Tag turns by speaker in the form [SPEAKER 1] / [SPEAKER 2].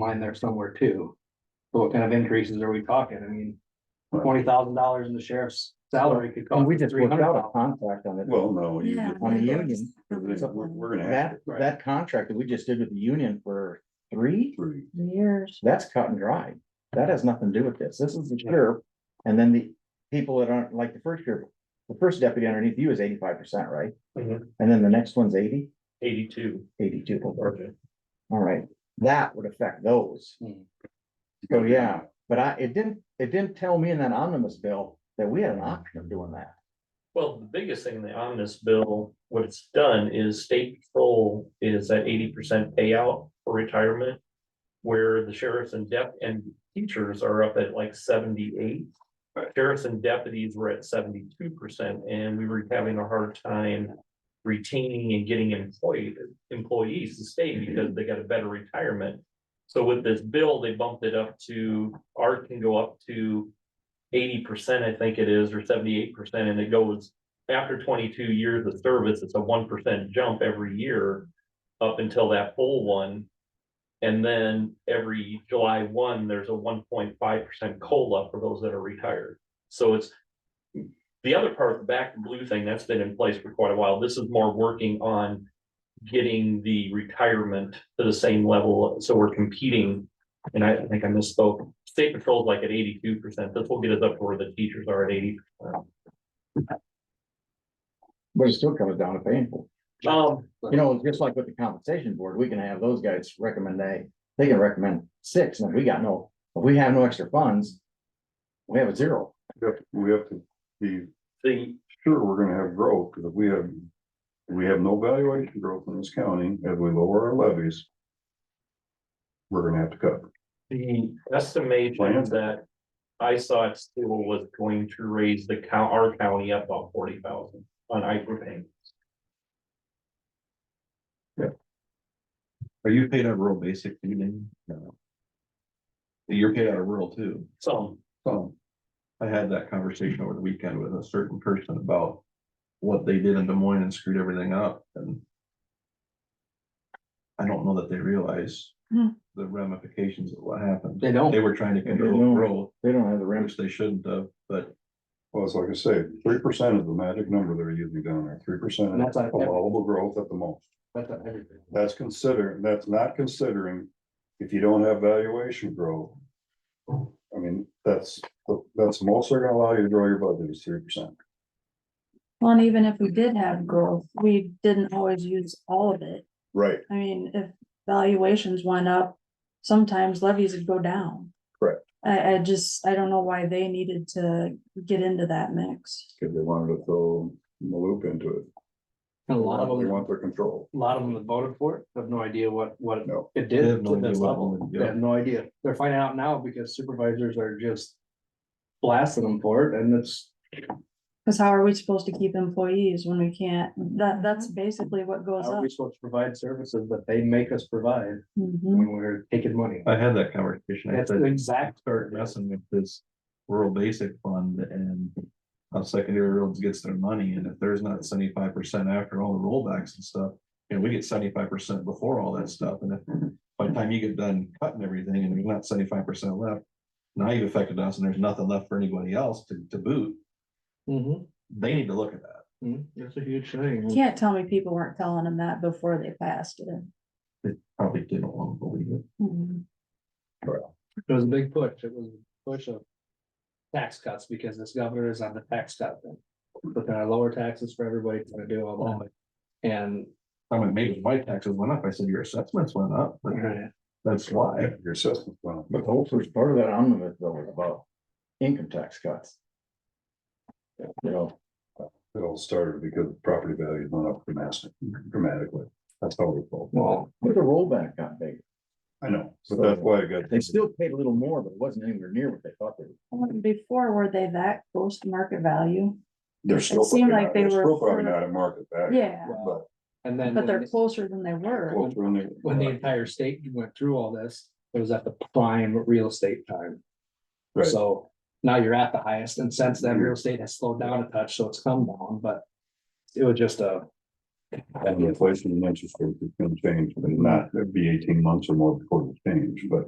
[SPEAKER 1] line there somewhere too. So what kind of increases are we talking? I mean, twenty thousand dollars in the sheriff's salary could
[SPEAKER 2] Oh,
[SPEAKER 1] cost
[SPEAKER 2] we just
[SPEAKER 1] three
[SPEAKER 2] worked
[SPEAKER 1] hundred
[SPEAKER 2] out a
[SPEAKER 1] dollars.
[SPEAKER 2] contract on it.
[SPEAKER 3] Well, no, you
[SPEAKER 4] Yeah.
[SPEAKER 3] just-
[SPEAKER 2] On the union,
[SPEAKER 3] we're, we're gonna have
[SPEAKER 2] that,
[SPEAKER 3] to
[SPEAKER 1] Right.
[SPEAKER 2] that contract that we just did with the union for three,
[SPEAKER 3] prove.
[SPEAKER 4] Years.
[SPEAKER 2] that's cut and dry. That has nothing to do with this. This is the sheriff. And then the people that aren't, like the first year, the first deputy underneath you is eighty-five percent, right?
[SPEAKER 1] Mm-hmm.
[SPEAKER 5] Mhm.
[SPEAKER 2] And then the next one's 80,
[SPEAKER 5] Eighty-two.
[SPEAKER 2] 82. All
[SPEAKER 5] Okay.
[SPEAKER 2] right, that would affect those.
[SPEAKER 1] Hmm.
[SPEAKER 2] So, yeah, but I, it didn't, it didn't tell me in that omnibus bill that we had an option of doing that.
[SPEAKER 5] Well, the biggest thing in the omnibus bill, what it's done is state patrol is at eighty percent payout for retirement. Where the sheriffs and dep and teachers are up at like seventy-eight. Sheriffs and deputies were at seventy-two percent and we were having a hard time. Retaining and getting employed employees to stay because they got a better retirement. So with this bill, they bumped it up to, art can go up to eighty percent, I think it is, or seventy-eight percent, and it goes after twenty-two years of service, it's a one percent jump every year up until that full one. And then every July one, there's a one point five percent COLA for those that are retired. So it's the other part of the back blue thing, that's been in place for quite a while. This is more working on getting the retirement to the same level, so we're competing. And I I think I misspoke, state patrol's like at eighty-two percent, this will get us up to where the teachers are at eighty.
[SPEAKER 2] But it still comes down to painful.
[SPEAKER 5] Um,
[SPEAKER 2] You know, just like with the compensation board, we can have those guys recommend they, they can recommend six, and if we got no, if we have no extra funds. We have a zero.
[SPEAKER 3] We have to- we have to be
[SPEAKER 5] the,
[SPEAKER 3] sure we're gonna have growth, because if we have, we have no valuation growth in this county, as we lower our levies. We're gonna have to cut.
[SPEAKER 5] the estimation that I saw it still was going to raise the count, our county up about forty thousand on ICR payments.
[SPEAKER 6] Are you paid out of rural basic, you mean? No. You're paid out of rural too.
[SPEAKER 5] So,
[SPEAKER 6] So I had that conversation over the weekend with a certain person about what they did in Des Moines and screwed everything up and I don't know that they realize
[SPEAKER 4] Hmm.
[SPEAKER 6] the ramifications of what happened.
[SPEAKER 1] They don't.
[SPEAKER 6] They were trying to
[SPEAKER 2] don't
[SPEAKER 6] control
[SPEAKER 2] know.
[SPEAKER 6] growth,
[SPEAKER 2] They don't have the rent.
[SPEAKER 6] which they shouldn't have, but
[SPEAKER 3] Well, it's like I say, three percent is the magic number they're using down there, three percent
[SPEAKER 1] And that's on every-
[SPEAKER 3] allowable growth at the most.
[SPEAKER 1] That's on everything.
[SPEAKER 3] That's considering, that's not considering if you don't have valuation growth. I mean, that's, that's most they're gonna allow you to grow your budget is three percent.
[SPEAKER 4] Well, and even if we did have growth, we didn't always use all of it.
[SPEAKER 3] Right.
[SPEAKER 4] I mean, if valuations went up, sometimes levies would go down.
[SPEAKER 3] Correct.
[SPEAKER 4] I, I just, I don't know why they needed to get into that mix.
[SPEAKER 3] Cause they wanted to throw the loop into it.
[SPEAKER 1] And a lot of
[SPEAKER 3] They
[SPEAKER 1] them, a
[SPEAKER 3] want their control.
[SPEAKER 1] lot of them that voted for it have no idea what, what
[SPEAKER 3] No.
[SPEAKER 1] it
[SPEAKER 6] they
[SPEAKER 1] did
[SPEAKER 6] have no
[SPEAKER 1] to
[SPEAKER 6] idea
[SPEAKER 1] this
[SPEAKER 6] what
[SPEAKER 1] level.
[SPEAKER 6] happened.
[SPEAKER 1] They have no idea. They're finding out now because supervisors are just blasting them for it and it's
[SPEAKER 4] Cause how are we supposed to keep employees when we can't? That, that's basically what goes
[SPEAKER 1] How are
[SPEAKER 4] up.
[SPEAKER 1] we supposed to provide services that they make us provide
[SPEAKER 4] Mhm.
[SPEAKER 1] when we're taking money?
[SPEAKER 6] I had that conversation. I
[SPEAKER 1] That's
[SPEAKER 6] said-
[SPEAKER 1] the exact
[SPEAKER 6] start messing with this rural basic fund and how secondary roads gets their money, and if there's not seventy-five percent after all the rollbacks and stuff, you know, we get seventy-five percent before all that stuff, and if by the time you get done cutting everything and there's not seventy-five percent left, now you've affected us and there's nothing left for anybody else to, to boot,
[SPEAKER 1] Mm-hmm.
[SPEAKER 6] they need to look at that.
[SPEAKER 1] That's a huge thing.
[SPEAKER 4] Can't tell me people weren't telling them that before they passed it.
[SPEAKER 6] They probably didn't want to believe it.
[SPEAKER 4] Mhm.
[SPEAKER 1] It was a big push. It was a push of tax cuts because this governor is on the tax cut thing. But then I lower taxes for everybody, it's gonna do all that. And
[SPEAKER 6] I mean, maybe my taxes went up, I said your assessments went up, but that's why.
[SPEAKER 3] Your assessment plan.
[SPEAKER 2] But the whole first part of that omnibus bill was about income tax cuts. You know,
[SPEAKER 3] It all started because property values went up dramatically, dramatically. That's how we fall.
[SPEAKER 1] well,
[SPEAKER 2] but the rollback got bigger.
[SPEAKER 3] I know, but that's why I got.
[SPEAKER 2] They still paid a little more, but it wasn't anywhere near what they thought they would.
[SPEAKER 4] Before, were they that close to market value?
[SPEAKER 3] They're still.
[SPEAKER 4] seemed
[SPEAKER 3] probably not-
[SPEAKER 4] like they
[SPEAKER 3] they're
[SPEAKER 4] were
[SPEAKER 3] Still probably
[SPEAKER 4] further-
[SPEAKER 3] not at market value.
[SPEAKER 4] Yeah,
[SPEAKER 3] But.
[SPEAKER 1] and then
[SPEAKER 4] but they're
[SPEAKER 1] when-
[SPEAKER 4] closer than they were.
[SPEAKER 3] well, they're only-
[SPEAKER 1] when the entire state went through all this, it was at the prime real estate time.
[SPEAKER 3] Right.
[SPEAKER 1] So now you're at the highest and since then, real estate has slowed down a touch, so it's come down, but it was just a
[SPEAKER 3] And the inflation and interest rates is gonna change, but not, it'd be eighteen months or more before it change, but.